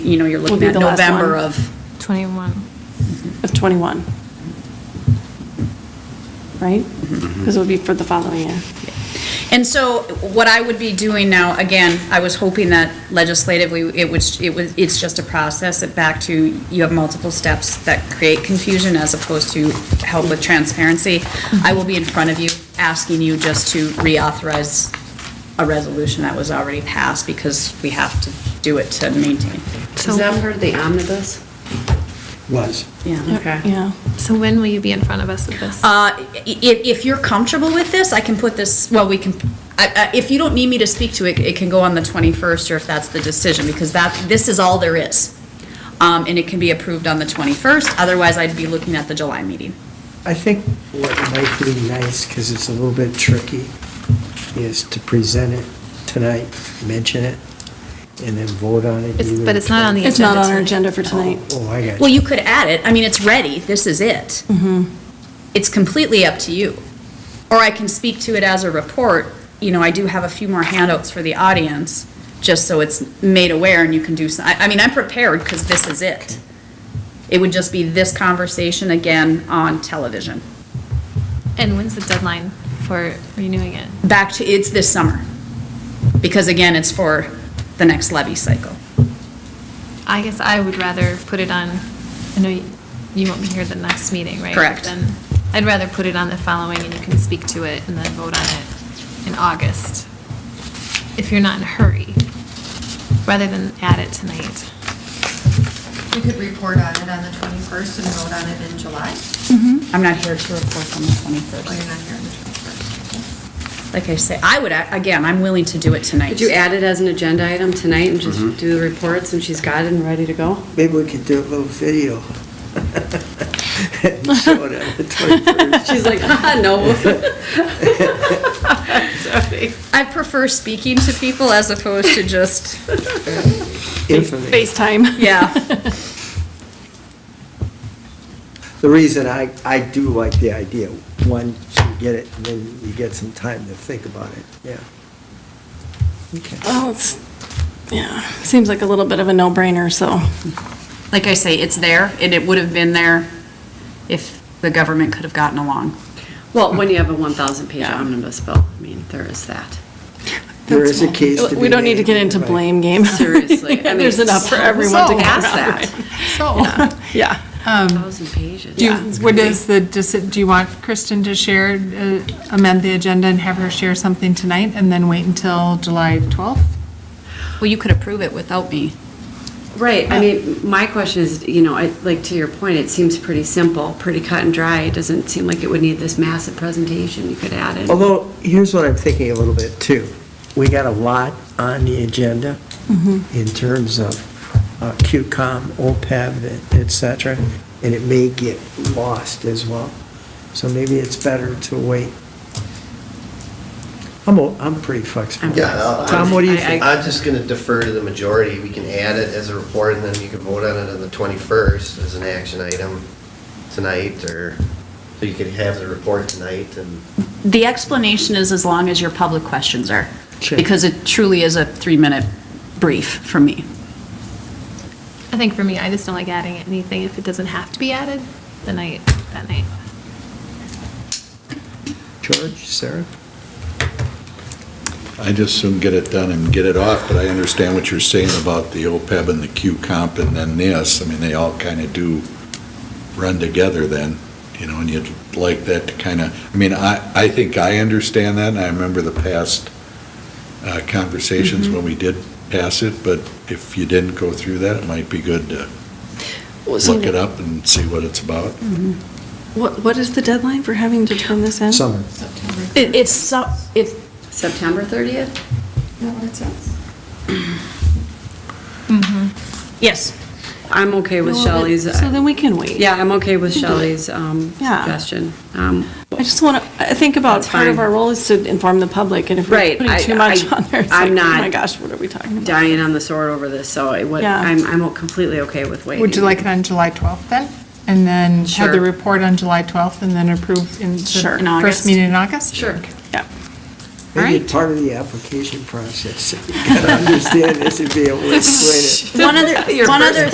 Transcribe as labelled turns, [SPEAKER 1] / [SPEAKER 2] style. [SPEAKER 1] you know, you're
[SPEAKER 2] Will
[SPEAKER 1] looking
[SPEAKER 2] be
[SPEAKER 1] at
[SPEAKER 2] the last
[SPEAKER 1] November
[SPEAKER 2] one.
[SPEAKER 1] of,
[SPEAKER 3] 21.
[SPEAKER 2] of '21. Right?
[SPEAKER 4] Mm-hmm.
[SPEAKER 2] Because it would be for the following year.
[SPEAKER 1] And so what I would be doing now, again, I was hoping that legislatively, it was, it was, it's just a process, it back to, you have multiple steps that create confusion as opposed to help with transparency. I will be in front of you, asking you just to reauthorize a resolution that was already passed because we have to do it to maintain.
[SPEAKER 3] So,
[SPEAKER 4] Is that part of the omnibus?
[SPEAKER 5] Was.
[SPEAKER 1] Yeah.
[SPEAKER 2] Yeah.
[SPEAKER 3] so when will you be in front of us with this?
[SPEAKER 1] If, Uh, if you're comfortable with this, I can put this, well, we can, I- I- if you don't need me to speak to it, it can go on the 21st, or if that's the decision, because that, this is all there is. Um, And it can be approved on the 21st, otherwise I'd be looking at the July meeting.
[SPEAKER 5] I think what might be nice, because it's a little bit tricky, is to present it tonight, mention it, and then vote on it.
[SPEAKER 3] It's-
[SPEAKER 5] either
[SPEAKER 3] But it's not on the agenda.
[SPEAKER 2] It's not on our
[SPEAKER 3] tonight.
[SPEAKER 2] agenda for tonight.
[SPEAKER 5] Oh, I got you.
[SPEAKER 1] Well, you could add it, I mean, it's ready, this is it.
[SPEAKER 4] Mm-hmm.
[SPEAKER 1] It's completely up to you. Or I can speak to it as a report, you know, I do have a few more handouts for the audience, just so it's made aware and you can do, some- I, I mean, I'm prepared, because this is it. It would just be this conversation again on television.
[SPEAKER 3] And when's the deadline for renewing it?
[SPEAKER 1] Back to, it's this summer, because again, it's for the next levy cycle.
[SPEAKER 3] I guess I would rather put it on, I know you- you won't be here the next meeting, right?
[SPEAKER 1] Correct.
[SPEAKER 3] Then I'd rather put it on the following and you can speak to it and then vote on it in August, if you're not in a hurry, rather than add it tonight.
[SPEAKER 6] We could report on it on the 21st and vote on it in July.
[SPEAKER 4] Mm-hmm.
[SPEAKER 1] I'm not here to report on the
[SPEAKER 4] Oh,
[SPEAKER 6] Well, you're
[SPEAKER 1] 21st.
[SPEAKER 6] not here on the 21st.
[SPEAKER 1] Like I say, I would, a- again, I'm willing to do it tonight.
[SPEAKER 4] Could you add it as an agenda item tonight and just do the reports and she's got it and ready to go?
[SPEAKER 5] Mm-hmm. Maybe we could do a little video. And show it on the 21st.
[SPEAKER 4] She's like, ah, no.
[SPEAKER 2] Oh,
[SPEAKER 1] I prefer speaking to people as opposed to just,
[SPEAKER 5] Infamy.
[SPEAKER 2] FaceTime.
[SPEAKER 1] yeah.
[SPEAKER 5] The reason I, I do like the idea, one, you get it, and then you get some time to think about it, yeah. Okay.
[SPEAKER 2] Well, it's, yeah, seems like a little bit of a no-brainer, so.
[SPEAKER 1] Like I say, it's there, and it would have been there if the government could have gotten along.
[SPEAKER 4] Well, when you have a 1,000-page omnibus bill, I mean, there is that.
[SPEAKER 5] There is a case to be
[SPEAKER 2] We don't need to get
[SPEAKER 5] made,
[SPEAKER 2] into
[SPEAKER 5] right.
[SPEAKER 2] blame game.
[SPEAKER 4] Seriously, I mean,
[SPEAKER 2] There's enough for everyone to
[SPEAKER 7] so-
[SPEAKER 2] get around.
[SPEAKER 4] Ask that.
[SPEAKER 7] So,
[SPEAKER 2] Yeah.
[SPEAKER 4] 1,000 pages.
[SPEAKER 7] do you, Oh, what is the, deci- do you want Kristen to share, uh, amend the agenda and have her share something tonight and then wait until July 12th?
[SPEAKER 1] Well, you could approve it without me.
[SPEAKER 4] Right, I mean, my question is, you know, I, like, to your point, it seems pretty simple, pretty cut and dry. It doesn't seem like it would need this massive presentation. You could add it.
[SPEAKER 5] Although, here's what I'm thinking a little bit too. We got a lot on the agenda
[SPEAKER 4] Mm-hmm.
[SPEAKER 5] in terms of uh, QCOM, OPEB, E et cetera, and it may get lost as well. So maybe it's better to wait. I'm, o- I'm pretty flexible.
[SPEAKER 8] Yeah, I'll-
[SPEAKER 5] Tom, what do you
[SPEAKER 4] I-
[SPEAKER 5] think?
[SPEAKER 8] I'm just going to defer to the majority. We can add it as a report, and then you can vote on it on the 21st as an action item tonight, or, so you could have the report tonight, and
[SPEAKER 1] The explanation is as long as your public questions are,
[SPEAKER 5] Sure.
[SPEAKER 1] because it truly is a three-minute brief from me.
[SPEAKER 3] I think for me, I just don't like adding anything if it doesn't have to be added the night, that night.
[SPEAKER 5] George, Sarah?
[SPEAKER 9] I just soon get it done and get it off, but I understand what you're saying about the OPEB and the Q comp and then this. I mean, they all kind of do run together then, you know, and you'd like that to kind of, I mean, I, I think I understand that, and I remember the past uh, conversations when we did pass it, but if you didn't go through that, it might be good to look it up and see what it's about.
[SPEAKER 2] What, what is the deadline for having to turn this in?
[SPEAKER 5] Summer.
[SPEAKER 6] September.
[SPEAKER 1] It- It's, so- it's,
[SPEAKER 4] September 30th?
[SPEAKER 6] Is that what it says?
[SPEAKER 1] yes,
[SPEAKER 4] I'm okay with
[SPEAKER 2] Well,
[SPEAKER 4] Shelley's.
[SPEAKER 2] So then we can wait.
[SPEAKER 4] Yeah, I'm okay with Shelley's um,
[SPEAKER 2] Yeah.
[SPEAKER 4] suggestion. Um,
[SPEAKER 2] I just want to, I think about
[SPEAKER 4] That's
[SPEAKER 2] part of
[SPEAKER 4] fine.
[SPEAKER 2] our role is to inform the public, and if we're
[SPEAKER 4] Right,
[SPEAKER 2] putting
[SPEAKER 4] I-
[SPEAKER 2] too much
[SPEAKER 4] I-
[SPEAKER 2] on there, it's like,
[SPEAKER 4] I'm
[SPEAKER 2] oh
[SPEAKER 4] not
[SPEAKER 2] my gosh, what are we talking about?
[SPEAKER 4] Dying on the sword over this, so I would,
[SPEAKER 2] Yeah.
[SPEAKER 4] I'm, I'm completely okay with waiting.
[SPEAKER 7] Would you like it on July 12th then? And then have
[SPEAKER 4] Sure.
[SPEAKER 7] the report on July 12th and then approve in
[SPEAKER 2] Sure. In
[SPEAKER 7] the
[SPEAKER 2] August.
[SPEAKER 7] first meeting in August?
[SPEAKER 4] Sure.
[SPEAKER 2] Yeah.
[SPEAKER 5] Maybe
[SPEAKER 7] Right.
[SPEAKER 5] part of the application process, you gotta understand this and be able to explain it.
[SPEAKER 4] One other, one other